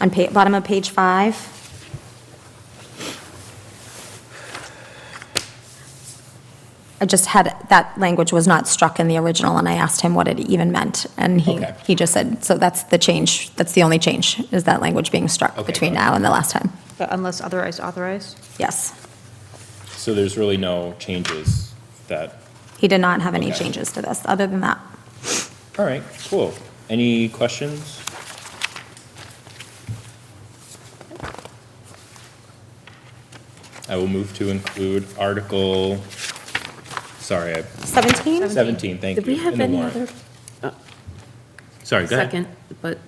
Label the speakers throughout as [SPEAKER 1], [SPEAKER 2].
[SPEAKER 1] on pa, bottom of page five. I just had, that language was not struck in the original, and I asked him what it even meant, and he,
[SPEAKER 2] Okay.
[SPEAKER 1] he just said, so that's the change, that's the only change, is that language being struck
[SPEAKER 2] Okay,
[SPEAKER 1] between
[SPEAKER 2] got it.
[SPEAKER 1] now and the last time.
[SPEAKER 3] But unless otherwise authorized?
[SPEAKER 1] Yes.
[SPEAKER 2] So there's really no changes that,
[SPEAKER 1] He did not have any
[SPEAKER 2] Okay.
[SPEAKER 1] changes to this, other than that.
[SPEAKER 2] all right, cool. Any questions? I will move to include Article, sorry, I-
[SPEAKER 1] 17?
[SPEAKER 2] 17, thank you.
[SPEAKER 4] Did we have
[SPEAKER 2] in the
[SPEAKER 4] any
[SPEAKER 2] warrant.
[SPEAKER 4] other?
[SPEAKER 2] Sorry, go ahead.
[SPEAKER 4] Second, but,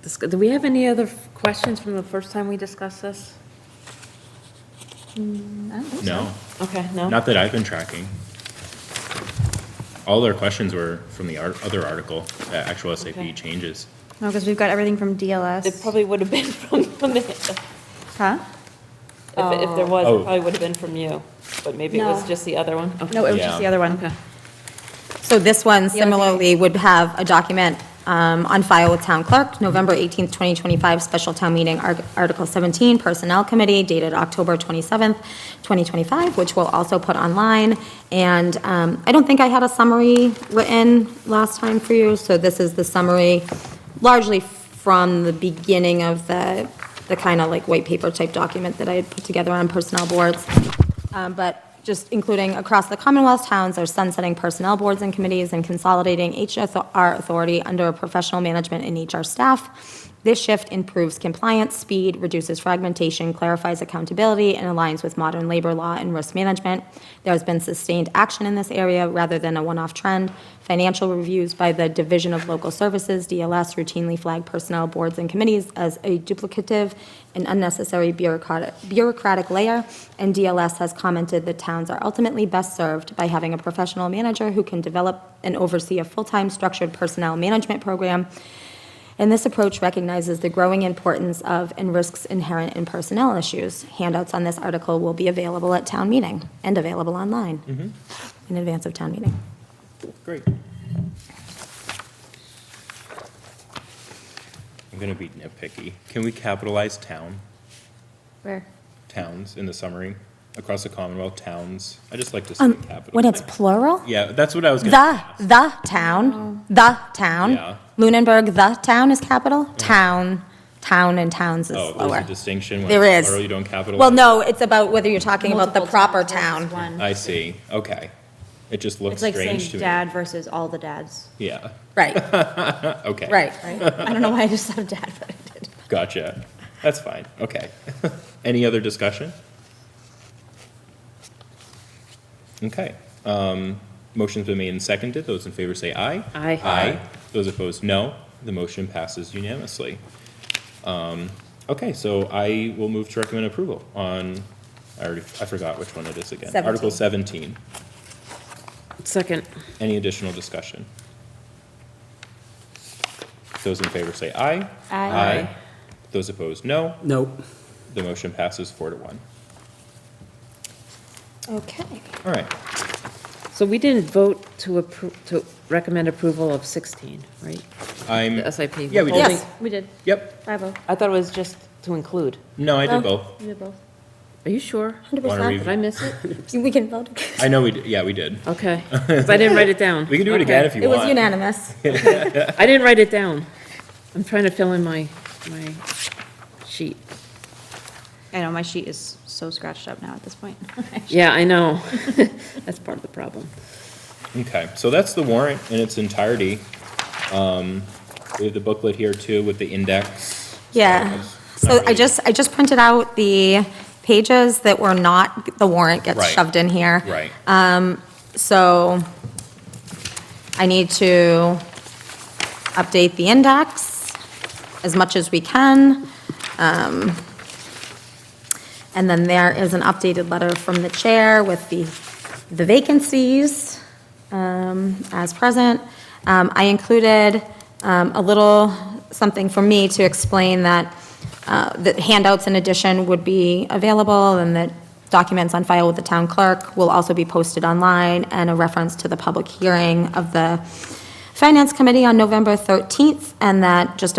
[SPEAKER 4] dis- do we have any other questions from the first time we discussed this?
[SPEAKER 2] No,
[SPEAKER 4] Okay, no?
[SPEAKER 2] not that I've been tracking. All their questions were from the ar- other article, the actual
[SPEAKER 4] Okay.
[SPEAKER 2] SAP changes.
[SPEAKER 3] No, because we've got everything from DLS.
[SPEAKER 4] It probably would have been from, from the- if,
[SPEAKER 3] Huh?
[SPEAKER 4] if there was,
[SPEAKER 2] Oh.
[SPEAKER 4] it probably would have been from you, but maybe it was
[SPEAKER 3] No.
[SPEAKER 4] just the other one? Okay.
[SPEAKER 3] No, it was just the
[SPEAKER 2] Yeah.
[SPEAKER 3] other one.
[SPEAKER 4] Okay.
[SPEAKER 1] So this one similarly would have a document um, on file with town clerk, November 18th, 2025, special town meeting, Ar- Article 17, Personnel Committee, dated October 27th, 2025, which we'll also put online. And um, I don't think I had a summary written last time for you, so this is the summary largely from the beginning of the, the kind of like white paper type document that I had put together on personnel boards. Um, But just including across the Commonwealth towns are sunsetting personnel boards and committees and consolidating HR authority under professional management and HR staff. This shift improves compliance, speed, reduces fragmentation, clarifies accountability, and aligns with modern labor law and risk management. There has been sustained action in this area rather than a one-off trend. Financial reviews by the Division of Local Services, DLS, routinely flag personnel boards and committees as a duplicative and unnecessary bureaucratic, bureaucratic layer, and DLS has commented that towns are ultimately best served by having a professional manager who can develop and oversee a full-time structured personnel management program and this approach recognizes the growing importance of and risks inherent in personnel issues. Handouts on this article will be available at town meeting and available online in advance of town meeting.
[SPEAKER 2] Great. I'm gonna be nitpicky. Can we capitalize town,
[SPEAKER 3] Where?
[SPEAKER 2] towns in the summary? Across the Commonwealth, towns. I just like to see
[SPEAKER 1] Um,
[SPEAKER 2] capital.
[SPEAKER 1] When it's
[SPEAKER 2] there.
[SPEAKER 1] plural,
[SPEAKER 2] Yeah, that's what I was gonna
[SPEAKER 1] the,
[SPEAKER 2] ask.
[SPEAKER 1] the town, the
[SPEAKER 2] Yeah.
[SPEAKER 1] town. Lunenburg, the town is capital, town, town and towns is
[SPEAKER 2] Oh, there's
[SPEAKER 1] lower.
[SPEAKER 2] a distinction when
[SPEAKER 1] There is.
[SPEAKER 2] it's plural, you don't capitalize?
[SPEAKER 1] Well, no, it's about whether you're talking about the
[SPEAKER 3] Multiple
[SPEAKER 1] proper
[SPEAKER 3] towns versus
[SPEAKER 1] town.
[SPEAKER 3] one.
[SPEAKER 2] I see, okay. It just looks
[SPEAKER 3] It's like saying
[SPEAKER 2] strange to me.
[SPEAKER 3] dad versus all the dads.
[SPEAKER 2] Yeah,
[SPEAKER 1] Right,
[SPEAKER 2] okay.
[SPEAKER 1] right.
[SPEAKER 3] Right? I don't know why I just said dad, but I did.
[SPEAKER 2] Gotcha. That's fine, okay. Any other discussion? Okay. um, Motion's been made and seconded. Those in favor say aye.
[SPEAKER 4] Aye.
[SPEAKER 2] Aye. Those opposed, no. The motion passes unanimously. Um, Okay, so I will move to recommend approval on, I already, I forgot which one it is again. Article 17.
[SPEAKER 4] Second.
[SPEAKER 2] Any additional discussion? Those in favor say aye.
[SPEAKER 3] Aye.
[SPEAKER 2] Those opposed, no.
[SPEAKER 5] Nope.
[SPEAKER 2] The motion passes four to one. Uh,
[SPEAKER 1] Okay.
[SPEAKER 2] All right,
[SPEAKER 4] So we didn't vote to appro, to recommend approval of 16, right?
[SPEAKER 2] I'm.
[SPEAKER 4] The SIP.
[SPEAKER 2] Yeah, we did.
[SPEAKER 1] Yes.
[SPEAKER 3] We did.
[SPEAKER 2] Yep.
[SPEAKER 3] Five oh.
[SPEAKER 4] I thought it was just to include.
[SPEAKER 2] No, I did both.
[SPEAKER 3] We did both.
[SPEAKER 4] Are you sure?
[SPEAKER 1] 100%.
[SPEAKER 4] Did I miss it?
[SPEAKER 1] We can vote.
[SPEAKER 2] I know we, did. yeah, we did.
[SPEAKER 4] Okay. 'Cause I didn't write it down.
[SPEAKER 2] We can do it
[SPEAKER 4] Okay.
[SPEAKER 2] again if you
[SPEAKER 1] It
[SPEAKER 2] want.
[SPEAKER 1] was unanimous.
[SPEAKER 4] I didn't write it down. I'm trying to fill in my, my sheet.
[SPEAKER 3] I know, my sheet is so scratched up now at this point.
[SPEAKER 4] Yeah, I know. That's part of the problem.
[SPEAKER 2] Okay, so that's the warrant in its entirety. Um, We have the booklet here too with the index.
[SPEAKER 1] Yeah, so I
[SPEAKER 2] Summary.
[SPEAKER 1] just, I just printed out the pages that were not, the warrant gets
[SPEAKER 2] Right.
[SPEAKER 1] shoved in here.
[SPEAKER 2] Right.
[SPEAKER 1] So I need to update the index as much as we can. Um, And then there is an updated letter from the chair with the, the vacancies um, as present. Um, I included um, a little something for me to explain that, uh, that handouts in addition would be available, and that documents on file with the town clerk will also be posted online, and a reference to the public hearing of the Finance Committee on November 13th, and that just a